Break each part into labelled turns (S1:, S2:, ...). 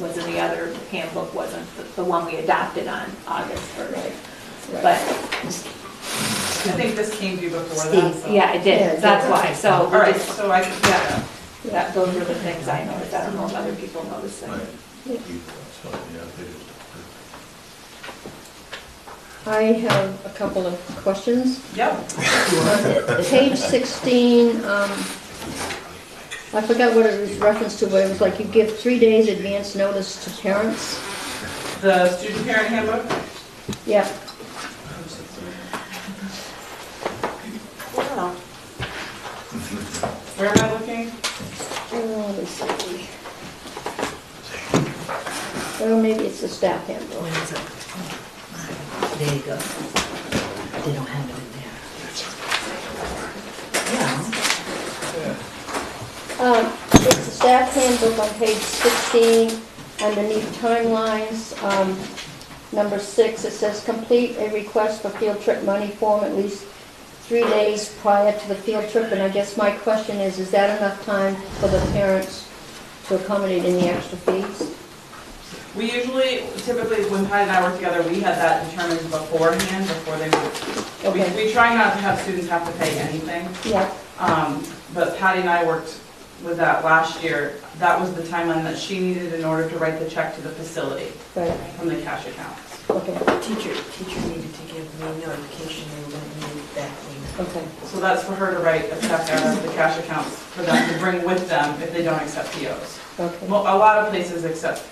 S1: was in the other handbook, wasn't the- the one we adopted on August 1st. But,
S2: Right.
S3: I think this came to you before that, so.
S1: Steve, yeah, I
S2: Yeah,
S1: did, that's why, so
S3: All
S1: we
S3: right,
S1: just-
S3: so I, yeah,
S1: that, those were the things I noticed, I don't know if other people noticed them.
S2: Yeah.
S4: So, yeah, they just-
S2: I have a couple of questions.
S3: yep,
S2: Uh, Page 16, um, I forgot what it was referenced to, but it was like you give three days advance notice to parents.
S3: the student parent handbook,
S2: Yeah,
S3: where am I looking?
S2: Oh, let me see. Well, maybe it's the staff handbook.
S5: When is it? Oh, There you go. They don't have it in there. Yeah,
S2: Um, It's the staff handbook on page 16, underneath timelines, um, number six, it says, "Complete a request for field trip money form at least three days prior to the field trip." And I guess my question is, is that enough time for the parents to accommodate any extra fees?
S3: We usually, typically, when Patty and I work together, we had that determined beforehand, before they would.
S2: Okay.
S3: We, we try not to have students have to pay anything,
S2: Yeah,
S3: um, but Patty and I worked with that last year. That was the timeline that she needed in order to write the check to the facility
S2: right,
S3: from the cash account.
S2: okay,
S5: teacher, teacher needed to give me notification they were gonna need that thing.
S2: okay,
S3: So that's for her to write a check out of the cash accounts for them to bring with them if they don't accept POs.
S2: okay,
S3: Well, a lot of places accept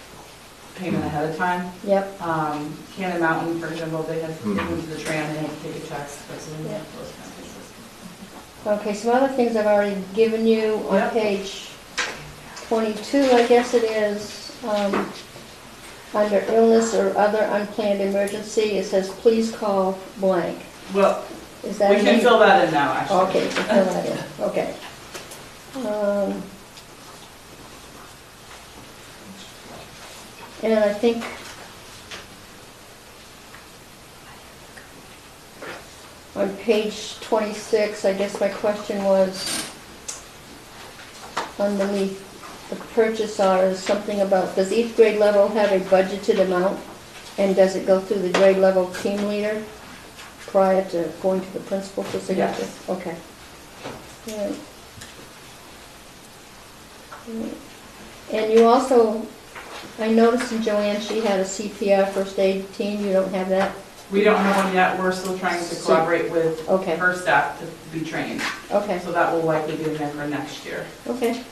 S3: payment ahead of time.
S2: yep.
S3: Um, Cannon Mountain, for example, they have
S4: Mhm.
S3: moved to the tram, they have to take a tax, that's in
S2: Yeah.
S3: those kind of places.
S2: Okay, some other things I've already given you on
S3: Yep.
S2: page 22, I guess it is, um, under illness or other unplanned emergency, it says, "Please call blank."
S3: Well,
S2: Is that?
S3: we can
S2: me?
S3: fill that in now, actually.
S2: Okay, you can fill that in, okay. Um, And I think... On page 26, I guess my question was, underneath the purchase order, is something about, does each grade level have a budgeted amount? And does it go through the grade level team leader prior to going to the principal for signature?
S3: Yes.
S2: Okay. All right. And you also, I noticed in Joanne, she had a CPR first aid team, you don't have that?
S3: We don't have one yet, we're still trying to
S2: So-
S3: collaborate with
S2: Okay,
S3: her staff to be trained,
S2: okay,
S3: so that will likely be in there for next year.
S2: okay,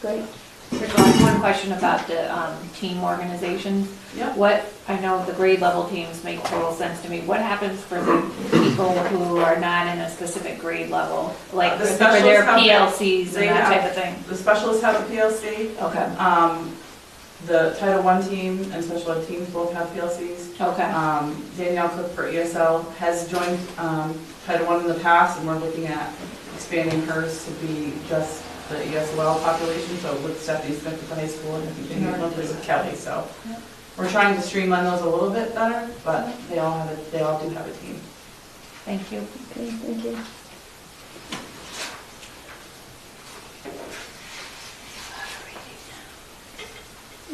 S2: great.
S1: There's only one question about the um, team organizations.
S3: Yep.
S1: What, I know the grade level teams make total sense to me, what happens for the people who are not in a specific grade level? Like
S3: Uh, The
S1: for their
S3: specialists have-
S1: PLCs
S3: they
S1: and that type
S3: have-
S1: of thing?
S3: The specialists have a PLC,
S1: Okay,
S3: um, the Title I team and special ed teams both have PLCs.
S1: okay,
S3: Um, Danielle Cook for ESL has joined um, Title I in the past, and we're looking at expanding hers to be just the ESL population, so with Stephanie Smith at the high school and Virginia Lovelace with Kelly, so.
S1: Yep.
S3: We're trying to streamline those a little bit better, but they all have, a- they all do have a team.
S1: thank you.
S2: Okay, thank you.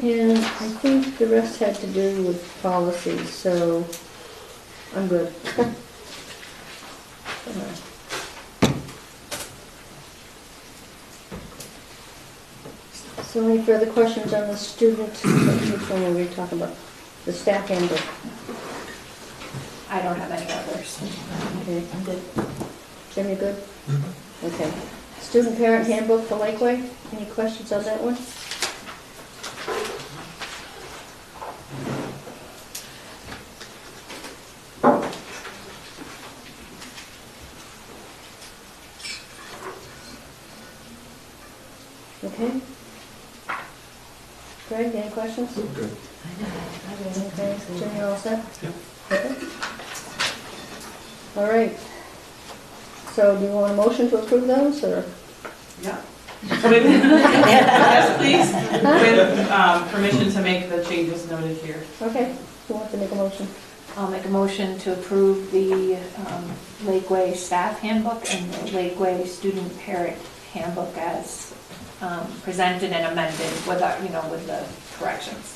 S2: And I think the rest had to do with policies, so I'm good. So any further questions on the student, which one were we talking about? The staff handbook,
S1: I don't have any others.
S2: okay.
S5: I'm good.
S2: Jim, you good? Okay. Student parent handbook for Lakeway, any questions on that one? Okay. Greg, any questions?
S5: I know. I really
S2: Okay,
S5: think so.
S2: Jim, you all set? Okay. All right. So do you want a motion to approve those, or?
S3: Yeah. With- Yes, please, with um, permission to make the changes noted here.
S2: Okay, who wants to make a motion?
S1: I'll make a motion to approve the um, Lakeway Staff Handbook and the Lakeway Student Parent Handbook as um, presented and amended without, you know, with the corrections.